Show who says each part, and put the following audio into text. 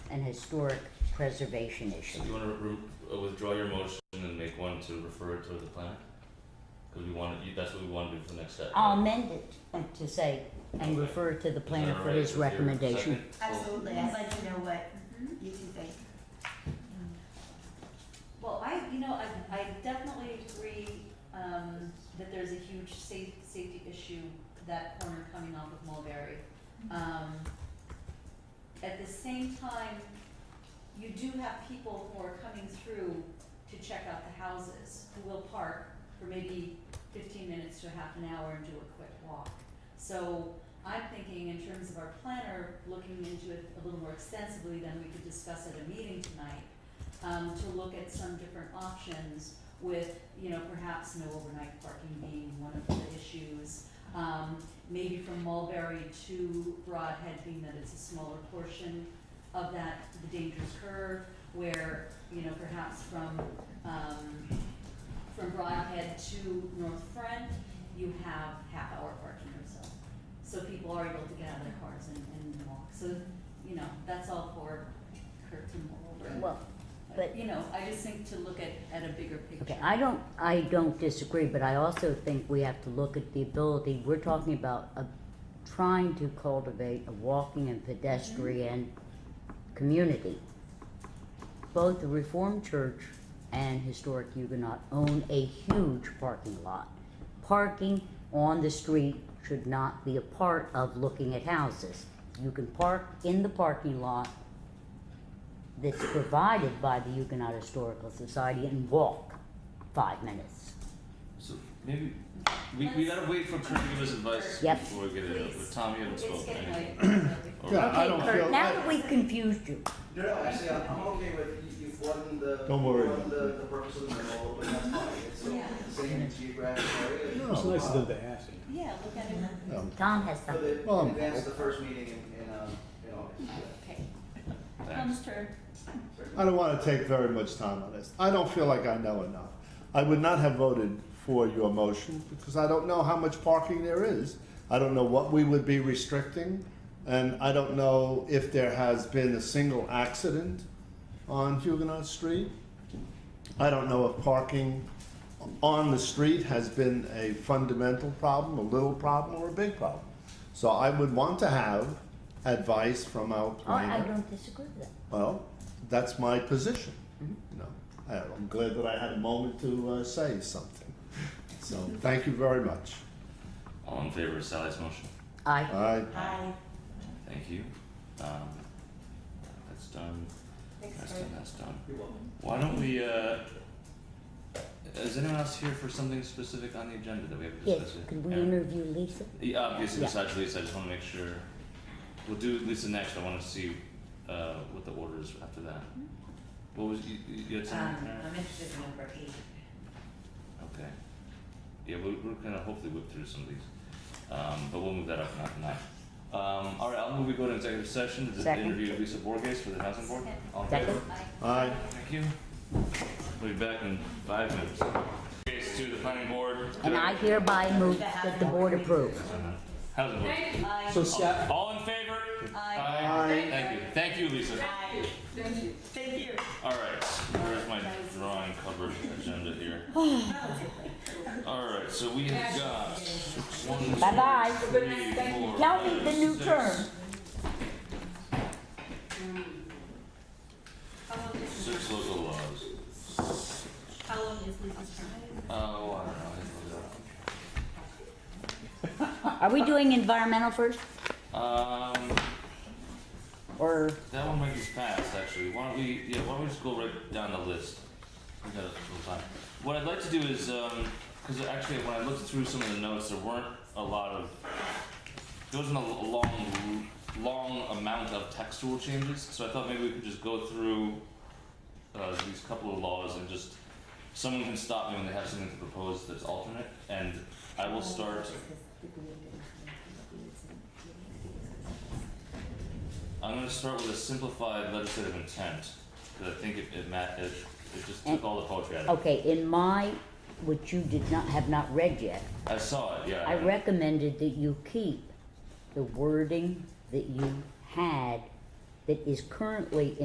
Speaker 1: an historic preservation issue.
Speaker 2: So you wanna re- re- withdraw your motion and make one to refer it to the planner? Cause we wanna, you- that's what we wanna do for the next step.
Speaker 1: I'll
Speaker 2: right?
Speaker 1: amend it to say, and refer to the
Speaker 2: Is
Speaker 1: Um, planner
Speaker 2: that
Speaker 1: for
Speaker 2: alright
Speaker 1: his
Speaker 2: with your
Speaker 1: recommendation.
Speaker 2: second?
Speaker 3: Absolutely, I'd like to know what
Speaker 4: Mm-hmm.
Speaker 3: you two think.
Speaker 4: Well, I, you know, I, I definitely agree, um, that there's a huge safe, safety issue, that corner coming off of Mulberry. Um, at the same time, you do have people who are coming through to check out the houses, who will park for maybe fifteen minutes to half an hour and do a quick walk. So I'm thinking in terms of our planner, looking into it a little more extensively than we could discuss at a meeting tonight, um, to look at some different options with, you know, perhaps no overnight parking being one of the issues. Um, maybe from Mulberry to Broadhead, being that it's a smaller portion of that, the dangerous curve, where, you know, perhaps from, um, from Broadhead to North Front, you have half-hour parking or so. So people are able to get out of their cars and, and walk, so, you know, that's all for Kurt to mull over.
Speaker 1: Well, but-
Speaker 4: You know, I just think to look at, at a bigger picture.
Speaker 1: okay, I don't, I don't disagree, but I also think we have to look at the ability, we're talking about a, trying to cultivate a walking and pedestrian community. Both the Reformed Church and Historic Huguenot own a huge parking lot. Parking on the street should not be a part of looking at houses. You can park in the parking lot that's provided by the Huguenot Historical Society and walk five minutes.
Speaker 2: So maybe, we, we gotta wait for Kurt to give us advice
Speaker 1: Yep.
Speaker 2: before we get into it, but Tom, you haven't
Speaker 4: It's
Speaker 2: spoken.
Speaker 4: getting
Speaker 2: anything.
Speaker 4: late. so-
Speaker 2: Or-
Speaker 5: Yeah. I
Speaker 1: Okay,
Speaker 5: don't
Speaker 1: Kurt,
Speaker 5: feel-
Speaker 1: now
Speaker 5: I-
Speaker 1: that we've confused you,
Speaker 6: No, no, actually, I'm I'm okay with, you- you've won the.
Speaker 5: Don't worry.
Speaker 6: Won the, the purpose of the role, but that's fine, it's
Speaker 4: Yeah.
Speaker 6: the same geographic area.
Speaker 5: It's nice of them to ask.
Speaker 4: Yeah, look at it.
Speaker 5: Um,
Speaker 1: Tom has
Speaker 6: For
Speaker 1: something.
Speaker 6: the,
Speaker 5: Well,
Speaker 6: in advance of the first meeting in, in, um, in August.
Speaker 4: Okay.
Speaker 2: Thanks.
Speaker 4: Tom's turn.
Speaker 5: I don't want to take very much time on this. I don't feel like I know enough. I would not have voted for your motion because I don't know how much parking there is. I don't know what we would be restricting, and I don't know if there has been a single accident on Huguenot Street. I don't know if parking on the street has been a fundamental problem, a little problem, or a big problem. So I would want to have advice from our
Speaker 1: Oh,
Speaker 5: planner.
Speaker 1: I don't disagree with that.
Speaker 5: Well, that's my position. You know, I, I'm glad that I had a moment to uh, say something. So thank you very much.
Speaker 2: All in favor of Sally's motion?
Speaker 1: I,
Speaker 5: I,
Speaker 3: Aye.
Speaker 2: Thank you. Um, that's done, that's done, that's done.
Speaker 6: You're welcome.
Speaker 2: Why don't we, uh, is anyone else here for something specific on the agenda that we have to
Speaker 1: yes,
Speaker 2: discuss? yet?
Speaker 1: could we
Speaker 2: Aaron?
Speaker 1: interview Lisa?
Speaker 2: Yeah, obviously,
Speaker 1: Yeah.
Speaker 2: besides Lisa, I just wanna make sure, we'll do Lisa next, I wanna see, uh, what the order is after that.
Speaker 1: Mm-hmm.
Speaker 2: What was, you, you you had
Speaker 3: Um,
Speaker 2: something? Aaron?
Speaker 3: I'm interested in number eight.
Speaker 2: Okay. Yeah, we're, we're gonna hopefully whip through some of these, um, but we'll move that up, not tonight. Um, alright, I'll move, we go to executive session, to
Speaker 1: Second.
Speaker 2: interview Lisa Borges for the housing board. All in
Speaker 1: Second.
Speaker 2: favor?
Speaker 5: I.
Speaker 2: Thank you. We'll be back in five minutes. Case to the planning board.
Speaker 1: And I hereby move that the board approve.
Speaker 2: How's it look?
Speaker 4: Aye.
Speaker 5: So staff,
Speaker 2: All in favor?
Speaker 4: Aye.
Speaker 5: Aye.
Speaker 2: Thank you, thank you, Lisa.
Speaker 3: Aye. Thank you. Thank you.
Speaker 2: All right, where's my drawing covered agenda here? All right, so we have got one, two,
Speaker 1: Bye-bye.
Speaker 2: three, four,
Speaker 1: Tell me the
Speaker 2: five,
Speaker 1: new
Speaker 2: six.
Speaker 1: term.
Speaker 2: Six local laws.
Speaker 3: How long is Lisa's term?
Speaker 2: Oh, I don't know. I didn't look it up.
Speaker 1: Are we doing environmental first,
Speaker 2: Um,
Speaker 1: or,
Speaker 2: that one might be fast, actually. Why don't we, yeah, why don't we just go right down the list? We got a little time. What I'd like to do is, um, because actually, when I looked through some of the notes, there weren't a lot of, there wasn't a l- long, long amount of textual changes. So I thought maybe we could just go through uh, these couple of laws and just someone can stop me when they have something to propose that's alternate, and I will start. I'm gonna start with a simplified legislative intent, because I think it, it ma- it, it just took all the poetry out of it.
Speaker 1: okay, in my, which you did not, have not read yet,
Speaker 2: I saw it, yeah.
Speaker 1: I recommended that you keep the wording that you had that is currently